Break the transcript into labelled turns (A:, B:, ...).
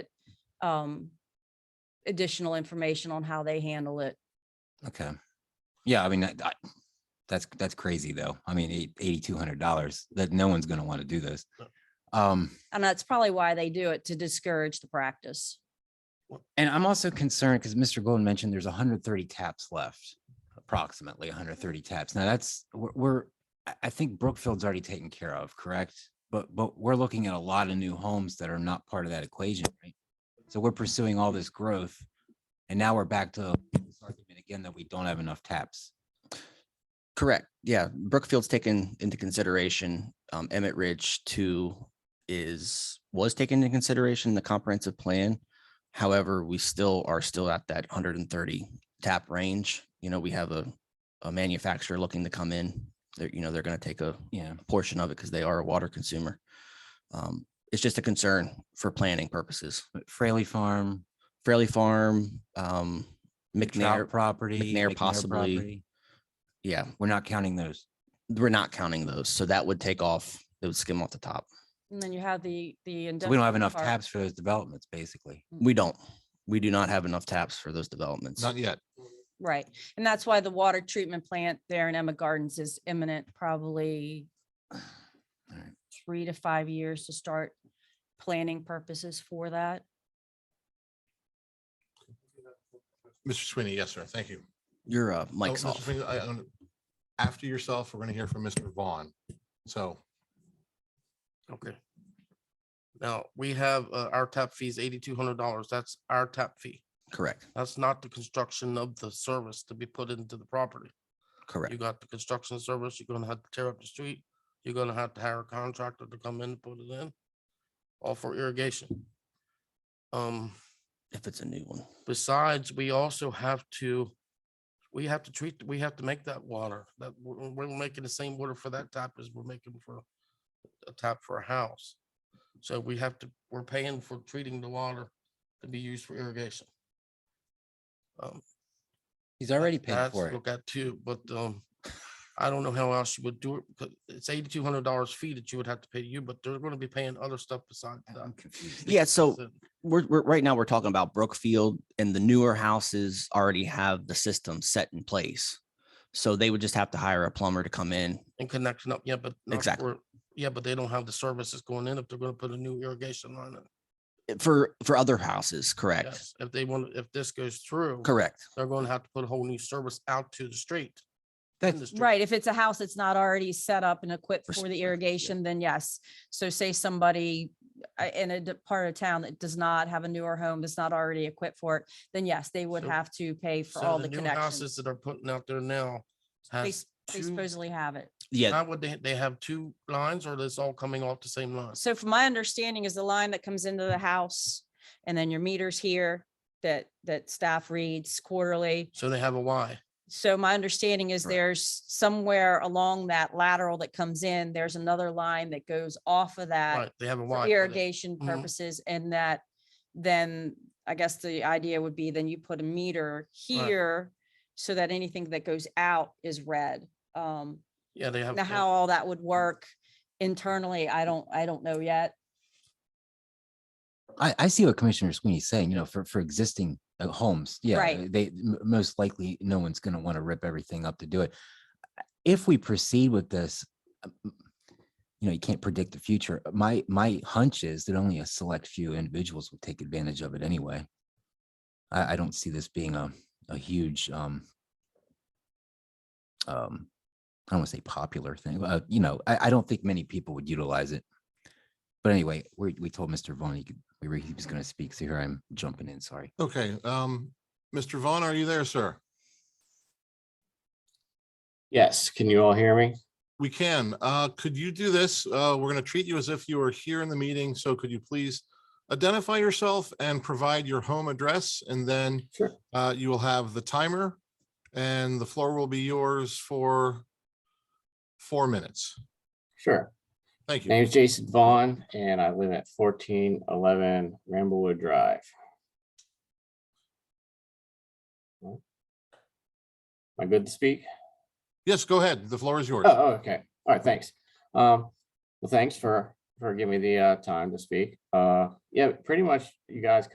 A: um, additional information on how they handle it.
B: Okay. Yeah, I mean, that, I- that's, that's crazy though. I mean, eight- $8,200 that no one's going to want to do this. Um,
A: And that's probably why they do it to discourage the practice.
B: and I'm also concerned because Mr. Golden mentioned there's 130 taps left, approximately 130 taps. Now that's, we're- we're, I- I think Brookfield's already taken care of, correct? But, but we're looking at a lot of new homes that are not part of that equation, right? So we're pursuing all this growth and now we're back to this argument again that we don't have enough taps.
C: Correct. Yeah. Brookfield's taken into consideration. Um, Emmett Ridge two is, was taken into consideration in the comprehensive plan. However, we still are still at that hundred and thirty tap range. You know, we have a, a manufacturer looking to come in. They're, you know, they're going to take a
B: Yeah.
C: portion of it because they are a water consumer. Um, it's just a concern for planning purposes.
B: But Fraley Farm,
C: Fraley Farm, um,
B: McNair
C: McNair,
B: property.
C: McNair possibly.
B: property.
C: yeah,
B: We're not counting those.
C: we're not counting those. So that would take off, it would skim off the top.
A: And then you have the, the.
B: So we don't
A: industrial
B: have enough
A: park.
B: tabs for those developments, basically.
C: We don't. We do not have enough taps for those developments.
D: Not yet.
A: Right. And that's why the water treatment plant there in Emma Gardens is imminent, probably
B: Alright.
A: three to five years to start planning purposes for that.
D: Mr. Sweeney, yes, sir. Thank you.
C: Your uh,
D: Oh,
C: mic's
D: Mr.
C: off.
D: Sweeney, I- I don't- After yourself, we're going to hear from Mr. Vaughn. So
E: Okay. Now, we have, uh, our tap fees eighty-two hundred dollars. That's our tap fee.
C: Correct.
E: That's not the construction of the service to be put into the property. You
C: Correct.
E: got the construction service, you're gonna have to tear up the street, you're gonna have to hire a contractor to come in and put it in. All for irrigation. Um,
C: If it's a new one.
E: besides, we also have to, we have to treat, we have to make that water, that, we're, we're making the same water for that tap as we're making for a tap for a house. So we have to, we're paying for treating the water to be used for irrigation. Um,
B: He's already paid
E: that's
B: for it.
E: Look at too, but, um, I don't know how else you would do it, because it's eighty-two hundred dollars fee that you would have to pay to you, but they're gonna be paying other stuff besides that.
B: I'm confused.
C: Yeah, so
E: So-
C: we're, we're right now we're talking about Brookfield and the newer houses already have the system set in place. So they would just have to hire a plumber to come in.
E: and connection up, yeah, but. not
C: Exactly.
E: for- Yeah, but they don't have the services going in if they're gonna put a new irrigation line in.
C: eh, For for other houses, correct?
E: Yes, If they want, if this goes through.
C: Correct.
E: They're gonna have to put a whole new service out to the street. in the
B: That's,
E: street.
A: Right. If it's a house that's not already set up and equipped
C: For
A: for the
C: something, yeah.
A: irrigation, then yes. So say somebody uh, in a d- part of town that does not have a newer home, that's not already equipped for it, then yes, they would
E: So-
A: have to pay for
E: So
A: all the
E: new
A: connections.
E: Houses that are putting out there now.
A: They
E: Has
A: s- they
E: two,
A: supposedly have it.
C: Yeah,
E: how would they, they have two lines or this all coming off the same line?
A: So from my understanding is the line that comes into the house and then your meters here that, that staff reads quarterly.
E: So they have a Y.
A: So my understanding is
C: Correct.
A: there's somewhere along that lateral that comes in, there's another line that goes off of that
E: Right, they have a
A: for
E: Y. for that.
A: Uh, irrigation
E: Mhm.
A: purposes and that then I guess the idea would be then you put a meter
E: Right.
A: here so that anything that goes out is red. Um,
E: Yeah, they have.
A: now
E: they-
A: how all that
E: Mm.
A: would work internally, I don't, I don't know yet.
B: I, I see what Commissioner Sweeney's saying, you know, for, for existing uh, homes, yeah,
A: Right.
B: they, m- most likely, no one's going to want to rip everything up to do it. If we proceed with this, um, you know, you can't predict the future. Uh, My, my hunch is that only a select few individuals will take advantage of it anyway. I, I don't see this being a, a huge, um, um, I don't want to say popular thing, uh, you know, I, I don't think many people would utilize it. But anyway, we, we told Mr. Vaughn he could we were, he was going to speak. So here I'm jumping in. Sorry.
D: Okay, um, Mr. Vaughn, are you there, sir?
F: Yes, can you all hear me?
D: We can. Uh, Could you do this? Uh, We're going to treat you as if you were here in the meeting, so could you please identify yourself and provide your home address, and then
F: Sure.
D: uh, you will have the timer, and the floor will be yours for four minutes.
F: Sure.
D: Thank
F: My
D: you.
F: name is Jason Vaughn and I live at fourteen eleven Ramblewood Drive. Am I good to speak?
D: Yes, go ahead. The floor is yours.
F: Oh, oh, okay. All right, thanks. Um, well, thanks for, for giving me the, uh, time to speak. Uh, yeah, pretty much you guys